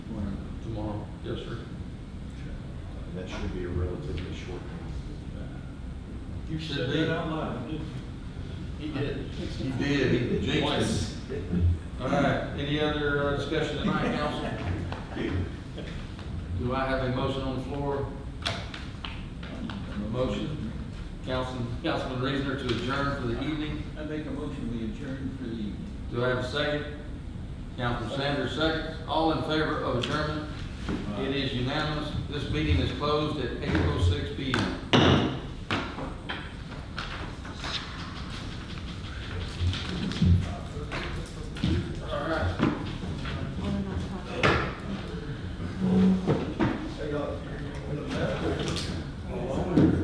that should be a relatively short. You said that out loud, didn't He did. He did, he jinxed Twice. it. All right, any other uh, discussion tonight, council? Do I have a motion on the floor? um, A motion, Councilman, Councilman Reasoner to adjourn for the evening? I make a motion, we adjourn for the evening. Do I have a second? Councilman Sanders, second. All in favor of adjournment? It is unanimous. This meeting is closed at eight oh six P M.